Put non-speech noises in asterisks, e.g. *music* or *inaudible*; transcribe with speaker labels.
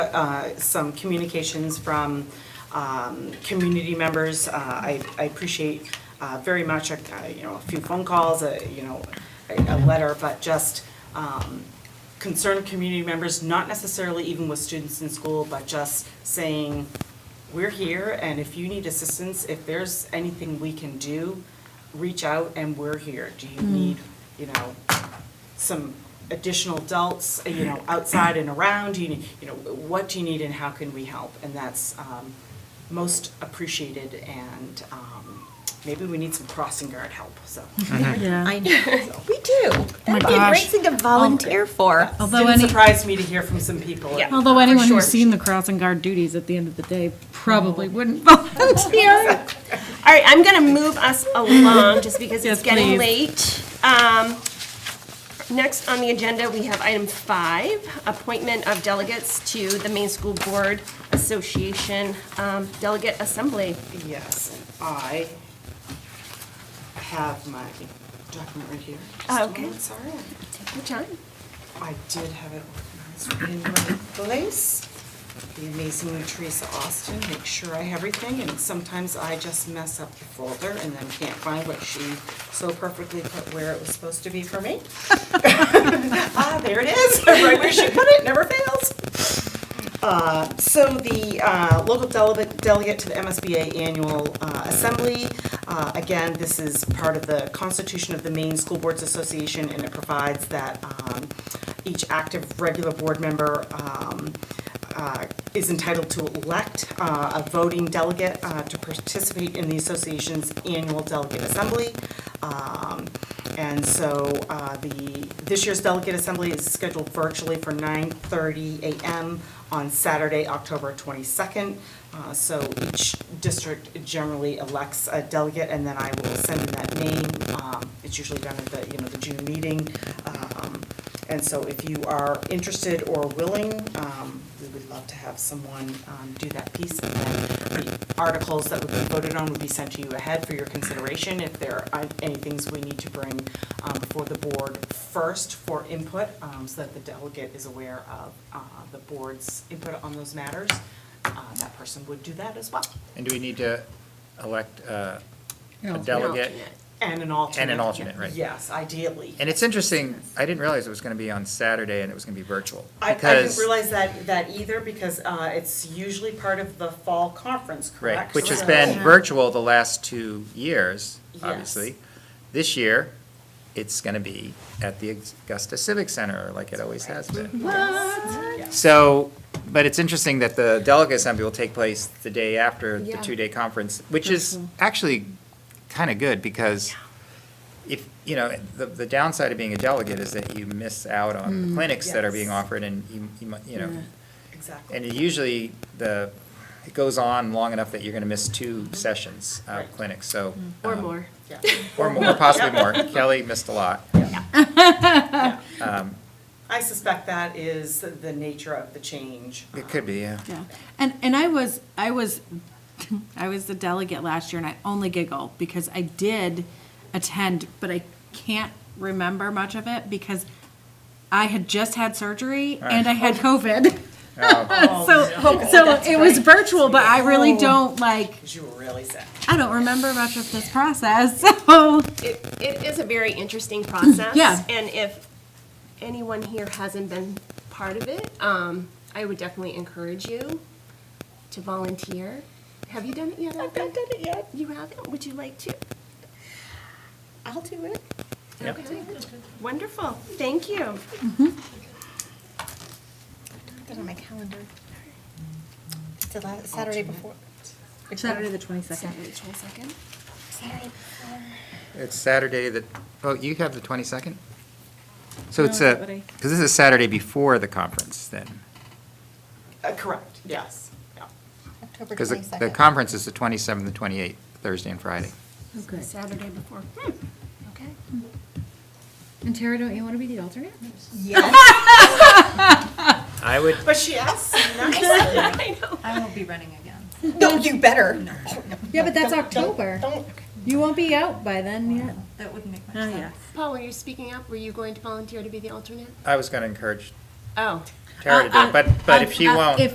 Speaker 1: uh, some communications from um, community members. Uh, I I appreciate uh, very much, uh, you know, a few phone calls, a, you know, a a letter, but just um, concerned community members, not necessarily even with students in school, but just saying, we're here, and if you need assistance, if there's anything we can do, reach out and we're here. Do you need, you know, some additional adults, uh, you know, outside and around? Do you need, you know, what do you need and how can we help? And that's um, most appreciated and um, maybe we need some crossing guard help, so.
Speaker 2: Yeah.
Speaker 3: I know. *laughs* Oh We do. That'd be a great
Speaker 2: gosh.
Speaker 3: thing to volunteer for.
Speaker 2: Although
Speaker 1: Didn't
Speaker 2: any,
Speaker 1: surprise me to hear from some people.
Speaker 3: Yeah.
Speaker 2: although anyone
Speaker 3: sure.
Speaker 2: who's seen the crossing guard duties at the end of the day probably wouldn't volunteer.
Speaker 3: All right, I'm going to move us along just because
Speaker 2: Yes,
Speaker 3: it's getting
Speaker 2: please.
Speaker 3: late. Um, Next on the agenda, we have item five, appointment of delegates to the Maine School Board Association um, Delegate Assembly.
Speaker 1: Yes, and I have my document right here. Just a
Speaker 3: Oh, okay.
Speaker 1: moment, Sorry.
Speaker 3: Take your time.
Speaker 1: I did have it organized in my place. The amazing Teresa Austin, make sure I have everything, and sometimes I just mess up the folder and then can't find what she so perfectly put where it was supposed to be for me. *laughs* Ah, there it is, *laughs* right where she put it, never fails. Uh, So the uh, local delegate delegate to the MSBA Annual uh, Assembly, uh, again, this is part of the Constitution of the Maine School Boards Association, and it provides that um, each active regular board member um, uh, is entitled to elect uh, a voting delegate uh, to participate in the association's annual delegate assembly. Um, And so uh, the, this year's delegate assembly is scheduled virtually for 9:30 a.m. on Saturday, October 22nd. Uh, So each district generally elects a delegate, and then I will send in that name. Um, It's usually done at the, you know, the June meeting. Um, and so if you are interested or willing, um, we would love to have someone um, do that piece. And then the articles that would be voted on would be sent to you ahead for your consideration. If there are any things we need to bring um, before the board first for input, um, so that the delegate is aware of uh, the board's input on those matters, uh, that person would do that as well.
Speaker 4: And do we need to elect uh, a
Speaker 2: alternate.
Speaker 4: delegate?
Speaker 1: And an alternate.
Speaker 4: alternate, right.
Speaker 1: Yes, ideally.
Speaker 4: And it's interesting, I didn't realize it was going to be on Saturday and it was going to be virtual.
Speaker 1: I, I didn't
Speaker 4: because-
Speaker 1: realize that, that either, because uh, it's usually part of the fall conference,
Speaker 4: Right,
Speaker 1: correct?
Speaker 4: which has
Speaker 1: So-
Speaker 4: been virtual the last two years,
Speaker 1: Yes.
Speaker 4: obviously. This year, it's going to be at the Augusta Civic Center, like it always has been. So, but it's interesting that the delegate assembly will take place the day after the
Speaker 3: Yeah.
Speaker 4: two-day conference, which is actually kind of good because if, you know, the, the downside of being a delegate is that you miss out on
Speaker 3: Mm,
Speaker 4: the clinics that are being
Speaker 1: Yes.
Speaker 4: offered and you, you mu- you know,
Speaker 1: Exactly.
Speaker 4: and it usually, the, it goes on long enough that you're going to miss two sessions of
Speaker 1: Right.
Speaker 4: clinics, so.
Speaker 3: Or
Speaker 4: um,
Speaker 3: more.
Speaker 1: Yeah.
Speaker 4: Or more,
Speaker 3: *laughs*
Speaker 4: possibly more. Kelly missed a lot.
Speaker 1: Yeah.
Speaker 4: Um,
Speaker 1: I suspect that is the nature of the change.
Speaker 4: It could
Speaker 3: *laughs*
Speaker 4: be, yeah.
Speaker 2: Yeah, and, and I was, I was, *laughs* I was the delegate last year, and I only giggle because I did attend, but I can't remember much of it because I had just had surgery and I *laughs* had COVID.
Speaker 4: Oh,
Speaker 2: *laughs* So, so it was virtual, but I really don't like,
Speaker 1: Because you were really sick.
Speaker 2: I don't remember much of this process, *laughs* so.
Speaker 3: It, it is a very interesting process.
Speaker 2: *clears throat* Yeah.
Speaker 3: And if anyone here hasn't been part of it, um, I would definitely encourage you to volunteer. Have you done it yet? I haven't done it yet. You haven't? Would you like to? I'll do it.
Speaker 4: Yep.
Speaker 3: Okay. Wonderful. Thank you.
Speaker 5: Put it on my calendar. It's the last Saturday before.
Speaker 2: Saturday the twenty-second.
Speaker 3: second.
Speaker 5: Saturday before.
Speaker 4: It's Saturday that, oh, you have the 22nd? So
Speaker 2: No,
Speaker 4: it's
Speaker 2: not
Speaker 4: a,
Speaker 2: what I-
Speaker 4: because this is Saturday before the conference then.
Speaker 1: Uh, Correct, yes, yeah.
Speaker 5: October
Speaker 4: Because the- the
Speaker 5: 22nd.
Speaker 4: conference is the 27th and 28th, Thursday and Friday.
Speaker 6: Okay.
Speaker 3: Saturday before. *laughs* Okay.
Speaker 6: And Tara, don't you want to be the alternate?
Speaker 5: Yes.
Speaker 4: I would,
Speaker 1: But she asked nicely.
Speaker 6: I won't be running again.
Speaker 5: No, you better.
Speaker 6: Yeah, but that's October.
Speaker 5: Don't.
Speaker 6: You won't be out by then yet.
Speaker 7: That wouldn't make much
Speaker 2: Oh,
Speaker 7: sense.
Speaker 2: yeah.
Speaker 3: Paul, were you speaking up? Were you going to volunteer to be the alternate?
Speaker 4: I was going to encourage
Speaker 3: Oh.
Speaker 4: Tara to do it, but, but if she
Speaker 5: Um,
Speaker 6: Uh, uh,
Speaker 4: won't.
Speaker 6: if